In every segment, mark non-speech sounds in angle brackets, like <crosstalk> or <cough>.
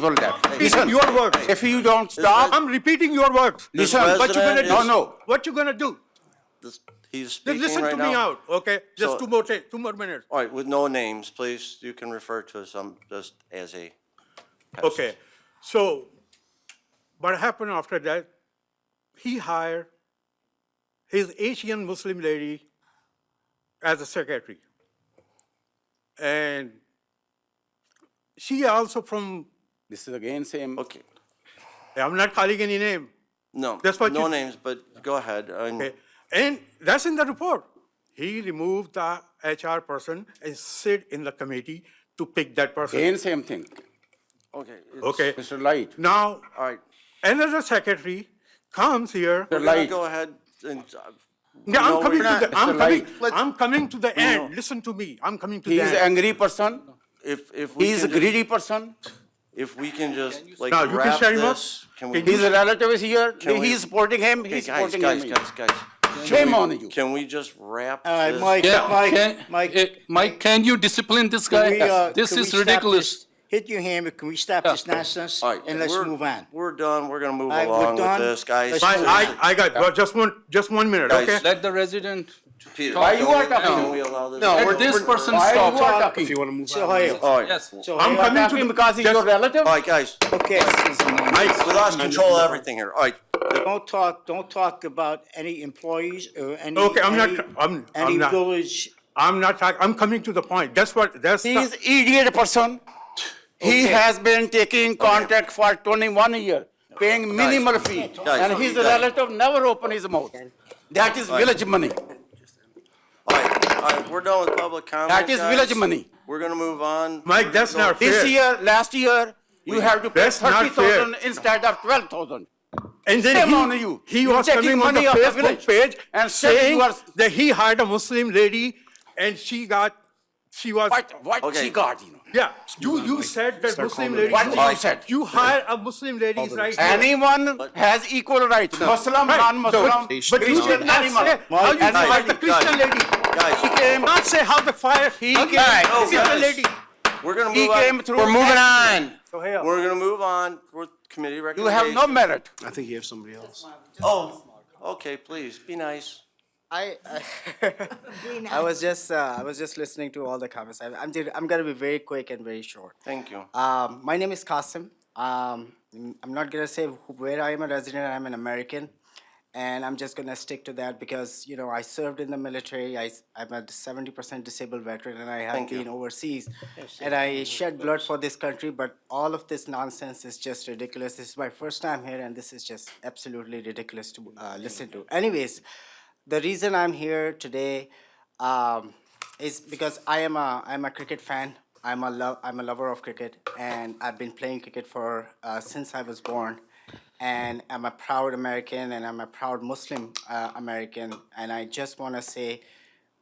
responsible that. Listen, your words. If you don't stop, I'm repeating your words. Listen, What you gonna President do? is- No, no. What you gonna do? This- He's Just speaking listen right to now. me out, okay? So- Just two more, ta- two more minutes. All right, with no names, please. You can refer to us um, just as a. pest. Okay, so what happened after that? He hired his Asian Muslim lady as a secretary. And she also from, this is again same. Okay. I'm not calling any name, No. That's what no you- names, but go ahead. um, I'm- okay? And that's in the report. He removed the HR person and sit in the committee to pick that person, Again same thing. okay. it's- okay? Mr. Light, Now, All right. another secretary comes here. Mr. We're gonna Light, Go ahead and. uh, Yeah, I'm no, coming we're to not. the, I'm Mr. coming, Light. I'm coming to the end. Listen to me. I'm coming to he the is end. angry person, If, if we he is can, a just- greedy person, if we can just like Now, you can wrap shut him up? this. Can we? Can his relative is here, Can he we- is supporting him, he Okay, is guys, supporting guys, him. guys, guys. Shame on you. Can we just wrap All right, this? Mike, Yeah, can, Mike, Mike. eh, Mike, can you discipline this can we, guy? uh, This can we is stop ridiculous. this? Hit your hammer. Can we stop this nonsense? All right, And let's we're- move on. We're done. We're gonna move All right, we're along with done. this, guys. Let's I, move Please. on. I, I got, well, just one, just one minute, Guys, okay? Let the resident, Peter, Why you are can we- talking? Can we allow this? No, let we're- this we're- person why you stop. are talking? want to move so on. Hey, All right, Yes. so I'm hey, You are coming to talking the- because he's your just- relative? all right, guys. okay. I- We lost control of everything here. All right. Don't talk, don't talk about any employees or any. Okay, I'm not- any- I'm- I'm Any not. village. I'm not, talk- I'm coming to the point. That's what, that's, He the- is idiot person. He has been taking contract for twenty-one year, paying minimal fee, guys, and his guys. relative never open his mouth. That is village money. All right, all right, we're done with public comment. That is guys. village money. We're gonna move on. Mike, that's not This fair. year, last year, you have to pay That's not thirty fair. thousand instead of twelve thousand. And Shame then on he, you. he You're was taking coming on the money of the Facebook village page and and saying saying you are- that he hired a Muslim lady and she got, she was, What, what Okay. she got, you know? yeah. You, you said that Muslim lady. What you Mike. said? You hire a Muslim lady, is right? here. Anyone has equal rights, Muslim, Right. non-Muslim, But you Christian, did not animal. say how you Mike, fired the Mike, Christian lady. Guys. He came, not say how the fire, He he came- came, No, guys. the Christian lady. We're gonna He move came on. through. We're moving on. We're gonna move on with committee You have no recommendations. merit. I think you have somebody else. Oh, okay, please, be nice. I, I, <laughs> I was just uh, I was just listening to all the comments. I, I'm did- I'm gonna be very quick and very short. Thank you. Um, my name is Qasim. Um, mm, I'm not gonna say who- where I am a resident. I'm an American, and I'm just gonna stick to that because you know I served in the military. I am a 70% disabled veteran, and I have Thank you. been overseas, and I shed blood for this country. But all of this nonsense is just ridiculous. This is my first time here, and this is just absolutely ridiculous to uh, listen to. Anyways, the reason I'm here today um, is because I am a I'm a cricket fan. I'm a love I'm a lover of cricket, and I've been playing cricket for uh, since I was born. And I'm a proud American, and I'm a proud Muslim uh, American. And I just want to say,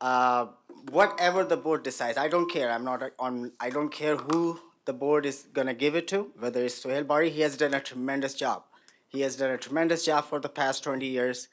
uh, whatever the board decides, I don't care. I'm not on. I don't care who the board is gonna give it to. Whether it's Sohail Bari, he has done a tremendous job. He has done a tremendous job for the past 20 years,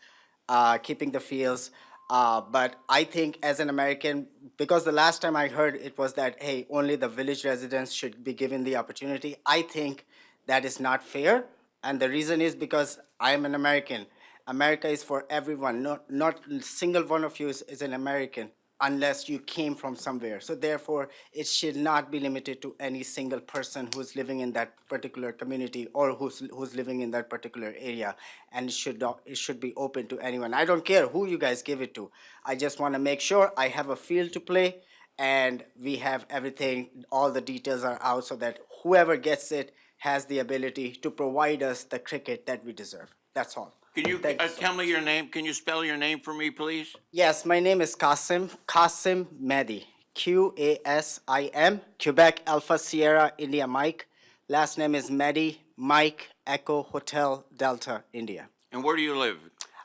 uh, keeping the fields. Uh, but I think as an American, because the last time I heard it was that, hey, only the village residents should be given the opportunity. I think that is not fair. And the reason is because I am an American. America is for everyone. Not, not single one of you is, is an American unless you came from somewhere. So therefore, it should not be limited to any single person who's living in that particular community or who's, who's living in that particular area. And it should, not, it should be open to anyone. I don't care who you guys give it to. I just want to make sure I have a field to play and we have everything, all the details are out so that whoever gets it has the ability to provide us the cricket that we deserve. That's all. Can you Thank uh, so tell me your name? Can you spell your name for me, please? Yes, my name is Qasim, Qasim Mehdi, Q A S I M, Quebec Alpha Sierra India Mike. Last name is Mehdi Mike Echo Hotel Delta India. And where do you live?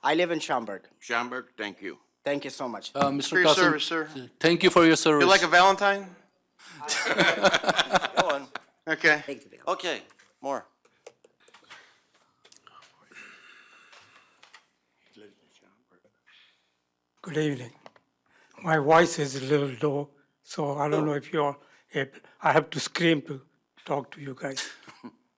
I live in Schaumburg. Schaumburg, thank you. Thank you so much. Uh, Mr. For your service, Qasim, sir. thank you for your service. You like a Valentine? Go on. <laughs> Okay. Okay, more. Good evening. My voice is a little low, so I don't know if you're, if I have to scream to talk to you guys.